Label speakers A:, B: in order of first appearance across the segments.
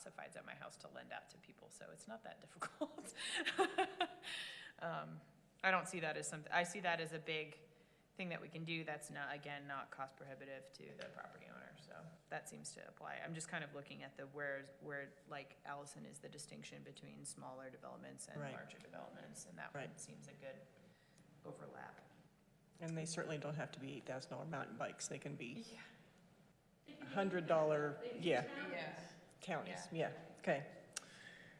A: classifieds at my house to lend out to people, so it's not that difficult. Um, I don't see that as something, I see that as a big thing that we can do that's not, again, not cost prohibitive to the property owner, so that seems to apply. I'm just kind of looking at the where's, where, like Allison is the distinction between smaller developments and
B: Right.
A: larger developments, and that one
B: Right.
A: seems a good overlap.
B: And they certainly don't have to be eight thousand dollar mountain bikes, they can be
A: Yeah.
B: hundred dollar, yeah,
A: Yeah.
B: counties, yeah, okay.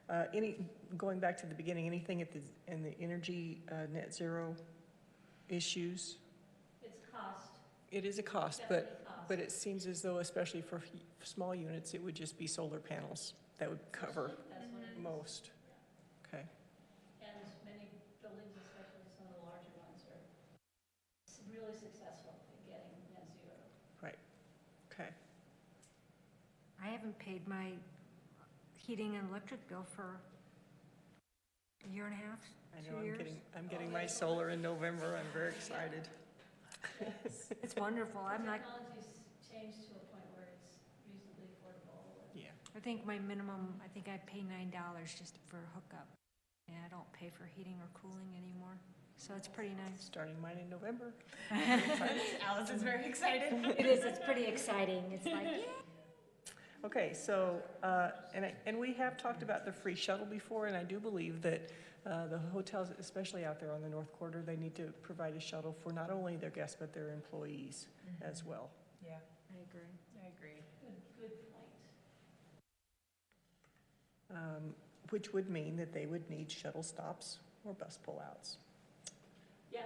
B: Uh, any, going back to the beginning, anything at the, in the energy, uh, net zero issues?
C: It's cost,
B: It is a cost, but,
C: definitely cost.
B: but it seems as though especially for f- small units, it would just be solar panels that would cover
C: That's what it is.
B: most. Okay,
C: And many buildings, especially some of the larger ones, are s- really successful in getting net zero.
B: okay.
D: I haven't paid my heating and electric bill for a year and a half,
B: I know,
D: two
B: I'm
D: years.
B: getting, I'm getting my solar in November, I'm very excited.
D: It's wonderful. I'm like,
C: Technology's changed to a point where it's reasonably affordable.
B: Yeah,
D: I think my minimum, I think I pay nine dollars just for a hookup. And I don't pay for heating or cooling anymore, so it's pretty nice.
B: starting mine in November.
A: Alice is very excited.
D: It is, it's pretty exciting. It's like, yeah.
B: Okay, so, uh, and I, and we have talked about the free shuttle before, and I do believe that uh, the hotels, especially out there on the North Quarter, they need to provide a shuttle for not only their guests, but their employees as well.
A: Yeah,
D: I agree.
A: I agree.
C: Good, good point.
B: um, Which would mean that they would need shuttle stops or bus pullouts.
C: Yeah,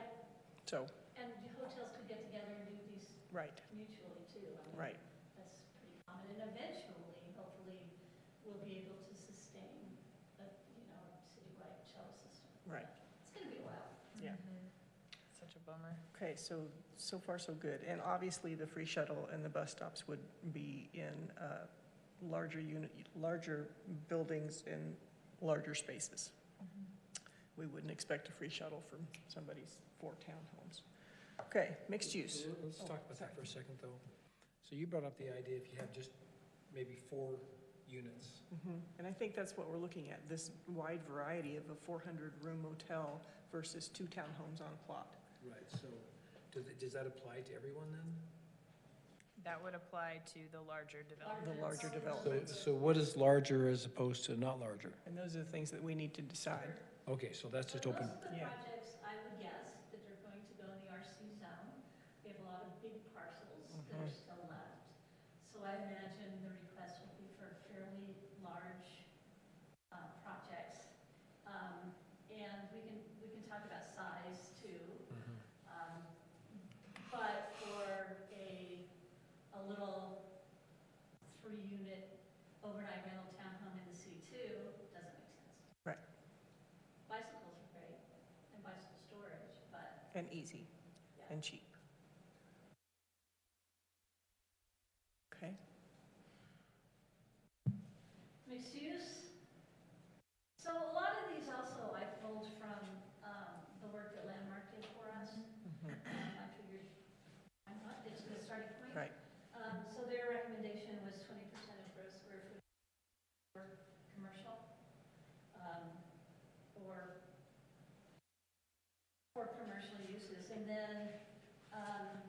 B: So,
C: and the hotels could get together and do these
B: right,
C: mutually too. I mean,
B: right,
C: That's pretty common, and eventually, hopefully, we'll be able to sustain a, you know, citywide shuttle system.
B: Right.
C: It's gonna be a while.
B: Yeah.
A: Mm-hmm. Such a bummer.
B: okay, so, so far, so good. And obviously, the free shuttle and the bus stops would be in uh, larger unit, larger buildings and larger spaces. we wouldn't expect a free shuttle from somebody's four townhomes. Okay, mixed use.
E: Let- Let's
B: Oh,
E: talk about that for a second, though. So you brought up the idea if you have just maybe four units.
B: Mhm. And I think that's what we're looking at, this wide variety of a 400-room motel versus two townhomes on a plot.
E: Right, so does, it- does that apply to everyone then?
A: That would apply to the larger development.
B: The larger developments.
E: So what is larger as opposed to not larger?
B: And those are the things that we need to decide.
E: Okay, so that's just
C: But
E: open.
C: Most of the
B: Yeah.
C: projects, I would guess, that are going to go in the RC zone, we have a lot of big parcels that
E: Mm-hmm.
C: are still left. So I imagine the request will be for fairly large uh, projects. Um, And we can, we can talk about size too.
E: Mhm.
C: Um, But for a, a little three-unit overnight rental townhome in the C2, doesn't make sense.
B: Right.
C: Bicycles are great, and bicycle storage, but
B: And easy and cheap. Okay,
C: mixed use. So a lot of these also I pulled from um, the work that Landmark did for us.
B: Mhm.
C: Um, I figured, I'm not, it's a good starting point.
B: right,
C: Um, So their recommendation was twenty percent of gross square footage for commercial, um, or for commercial uses. And then, um,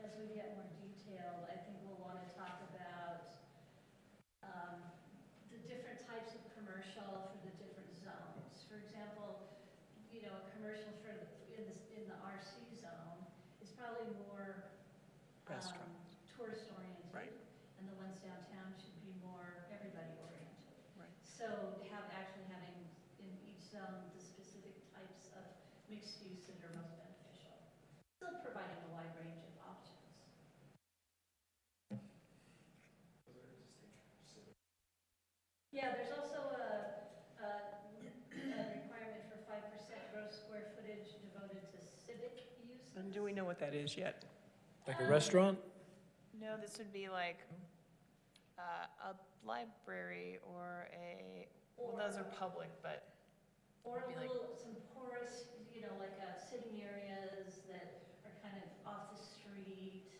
C: as we get more detailed, I think we'll want to talk about um, the different types of commercial for the different zones. For example, you know, a commercial for, the- in the, in the RC zone is probably more
B: restaurant,
C: um, Tourist oriented.
B: Right.
C: And the ones downtown should be more everybody oriented.
B: Right.
C: So have, actually having in each zone the specific types of mixed use that are most beneficial. Still providing a wide range of options. Yeah, there's also a, a a requirement for five percent gross square footage devoted to civic uses.
B: and do we know what that is yet?
E: Like a restaurant?
A: No, this would be like uh, a library or a, well, those are public, but
C: Or
A: Be
C: a
A: like-
C: little, some porous, you know, like, uh, sitting areas that are kind of off the street,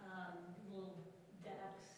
C: um, little decks,